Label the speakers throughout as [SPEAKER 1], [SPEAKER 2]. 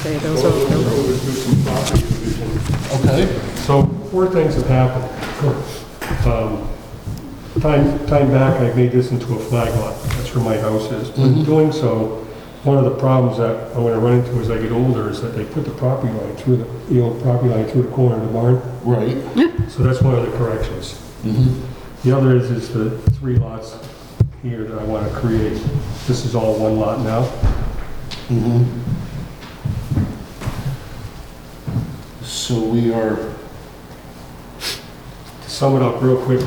[SPEAKER 1] Okay, those are,
[SPEAKER 2] Okay.
[SPEAKER 3] So four things have happened. Um, Time, time back, I made this into a flag lot. That's where my house is. But in doing so, one of the problems that I'm gonna run into as I get older is that they put the property line through the, the old property line through the corner of the barn.
[SPEAKER 2] Right.
[SPEAKER 3] So that's one of the corrections. The other is, is the three lots here that I wanna create. This is all one lot now.
[SPEAKER 2] Mm-hmm. So we are,
[SPEAKER 3] To sum it up real quick,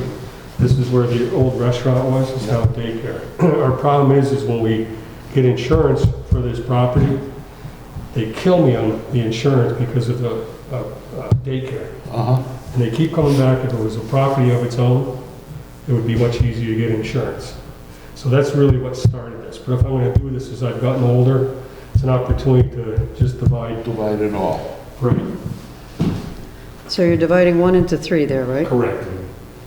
[SPEAKER 3] this is where the old restaurant was, it's now daycare. Our problem is, is when we get insurance for this property, they kill me on the insurance because of the uh, uh, daycare.
[SPEAKER 2] uh-huh,
[SPEAKER 3] And they keep coming back, if it was a property of its own, it would be much easier to get insurance. So that's really what started this. But if I'm gonna do this, as I've gotten older, it's an opportunity to just divide.
[SPEAKER 2] divide it all.
[SPEAKER 3] Right.
[SPEAKER 1] so you're dividing one into three there, right?
[SPEAKER 3] Correct.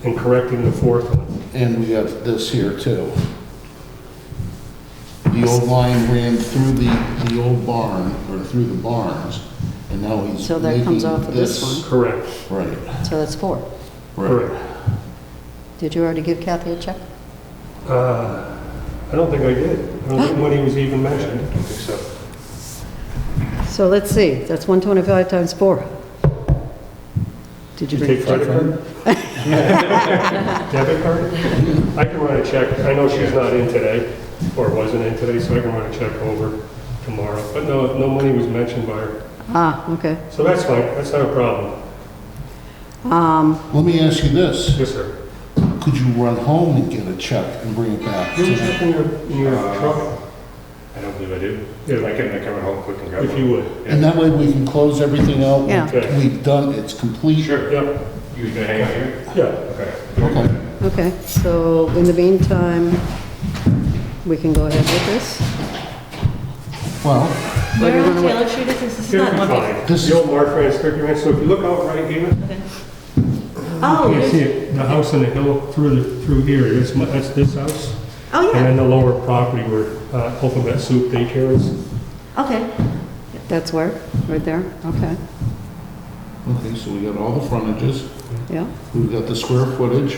[SPEAKER 3] And correcting the fourth one.
[SPEAKER 2] And we got this here too. The old line ran through the, the old barn, or through the barns, and now he's
[SPEAKER 1] So that comes
[SPEAKER 2] making
[SPEAKER 1] off of this
[SPEAKER 3] Correct.
[SPEAKER 2] Right,
[SPEAKER 1] So that's four.
[SPEAKER 2] right.
[SPEAKER 3] Correct.
[SPEAKER 1] Did you already give Kathy a check?
[SPEAKER 3] Uh, I don't think I did. I don't think money was even mentioned. Except
[SPEAKER 1] So let's see, that's 125 times four. Did you
[SPEAKER 3] You
[SPEAKER 1] bring a
[SPEAKER 3] take
[SPEAKER 1] check?
[SPEAKER 3] credit card? Debit card? I can run a check. I know she's not in today, or wasn't in today, so I can run a check over tomorrow. But no, no money was mentioned by her.
[SPEAKER 1] Ah, okay.
[SPEAKER 3] So that's fine. That's not a problem.
[SPEAKER 1] Um,
[SPEAKER 2] Let me ask you this,
[SPEAKER 3] Yes, sir.
[SPEAKER 2] could you run home and get a check and bring it back?
[SPEAKER 3] Do you check in your, in your
[SPEAKER 4] Uh,
[SPEAKER 3] truck?
[SPEAKER 4] I don't believe I do.
[SPEAKER 3] Yeah.
[SPEAKER 4] I can, I can run home quick and grab
[SPEAKER 3] If
[SPEAKER 4] one.
[SPEAKER 3] you would.
[SPEAKER 2] And that way we can close everything out.
[SPEAKER 1] Yeah.
[SPEAKER 3] Okay.
[SPEAKER 2] We've done, it's complete.
[SPEAKER 4] Sure.
[SPEAKER 3] Yeah,
[SPEAKER 4] You gonna hang out here?
[SPEAKER 3] yeah.
[SPEAKER 4] Okay.
[SPEAKER 2] Okay.
[SPEAKER 1] okay, so in the meantime, we can go ahead with this?
[SPEAKER 2] Well,
[SPEAKER 1] Or do you
[SPEAKER 5] Where
[SPEAKER 1] wanna
[SPEAKER 5] on
[SPEAKER 1] wait?
[SPEAKER 5] Taylor Street is this? This is
[SPEAKER 3] It'll be
[SPEAKER 5] not one.
[SPEAKER 3] fine.
[SPEAKER 2] This
[SPEAKER 3] The old Mark Franz Victor Ranch. So if you look out right here,
[SPEAKER 5] Oh,
[SPEAKER 3] you can see
[SPEAKER 5] there's-
[SPEAKER 3] it. The house on the hill through the, through here. That's my, that's this house.
[SPEAKER 5] oh,
[SPEAKER 3] And
[SPEAKER 5] yeah,
[SPEAKER 3] then the lower property where uh, Alphabet Soup daycare is.
[SPEAKER 5] okay.
[SPEAKER 1] That's where, right there? Okay,
[SPEAKER 2] okay, so we got all the frontages,
[SPEAKER 1] yeah.
[SPEAKER 2] we've got the square footage.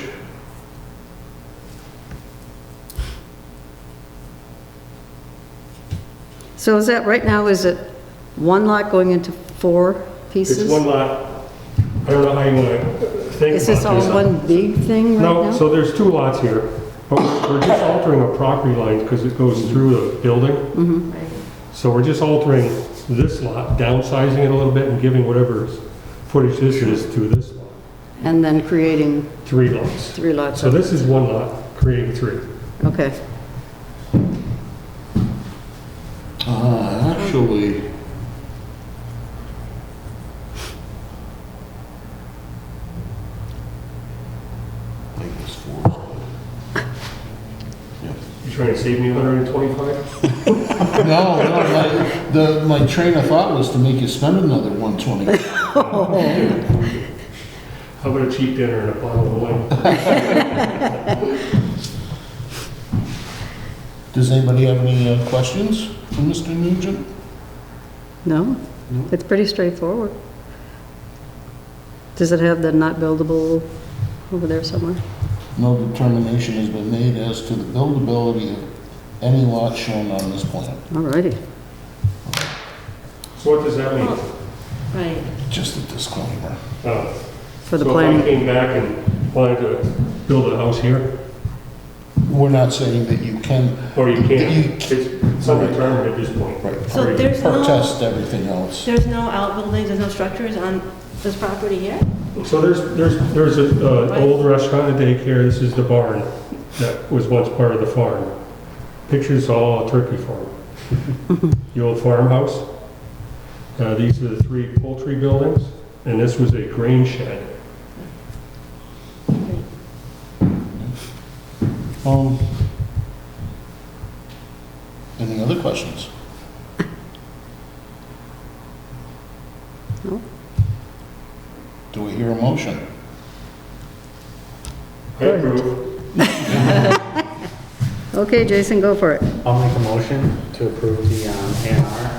[SPEAKER 1] So is that, right now, is it one lot going into four pieces?
[SPEAKER 3] It's one lot. I don't know how you want to think
[SPEAKER 1] Is this
[SPEAKER 3] about
[SPEAKER 1] all
[SPEAKER 3] this.
[SPEAKER 1] one big thing right now?
[SPEAKER 3] No, so there's two lots here, but we're just altering a property line because it goes through the building.
[SPEAKER 1] Mm-hmm.
[SPEAKER 5] Right.
[SPEAKER 3] So we're just altering this lot, downsizing it a little bit and giving whatever footage this is to this lot,
[SPEAKER 1] And then creating
[SPEAKER 3] three lots.
[SPEAKER 1] three lots
[SPEAKER 3] So
[SPEAKER 1] of,
[SPEAKER 3] this is one lot, creating three.
[SPEAKER 1] okay.
[SPEAKER 2] Uh, actually, like this four.
[SPEAKER 3] You trying to save me 125?
[SPEAKER 2] No, no, my, the, my train of thought was to make you spend another 120.
[SPEAKER 1] Oh.
[SPEAKER 3] How about a cheap dinner and a bottle of wine?
[SPEAKER 2] Does anybody have any uh, questions for Mr. Nugent?
[SPEAKER 1] No? It's pretty straightforward. Does it have the not buildable over there somewhere?
[SPEAKER 2] No determination has been made as to the buildability of any lot shown on this plan.
[SPEAKER 1] All righty.
[SPEAKER 3] So what does that mean?
[SPEAKER 5] Right.
[SPEAKER 2] Just a disclaimer.
[SPEAKER 3] Uh,
[SPEAKER 1] For the
[SPEAKER 3] So if I
[SPEAKER 1] planning,
[SPEAKER 3] came back and wanted to build a house here,
[SPEAKER 2] We're not saying that you can,
[SPEAKER 3] or you
[SPEAKER 2] You-
[SPEAKER 3] can't, it's undetermined at this point.
[SPEAKER 2] right,
[SPEAKER 5] So
[SPEAKER 3] Alright,
[SPEAKER 5] there's no,
[SPEAKER 2] protest everything else.
[SPEAKER 5] there's no outbuildings, there's no structures on this property here?
[SPEAKER 3] So there's, there's, there's a, uh, old restaurant, a daycare, this is the barn that was once part of the farm. Pictures all a turkey farm. The old farmhouse. Uh, these are the three poultry buildings, and this was a grain shed.
[SPEAKER 2] Um, any other questions?
[SPEAKER 1] No.
[SPEAKER 2] Do we hear a motion?
[SPEAKER 3] I approve.
[SPEAKER 1] okay, Jason, go for it.
[SPEAKER 6] I'll make a motion to approve the A and R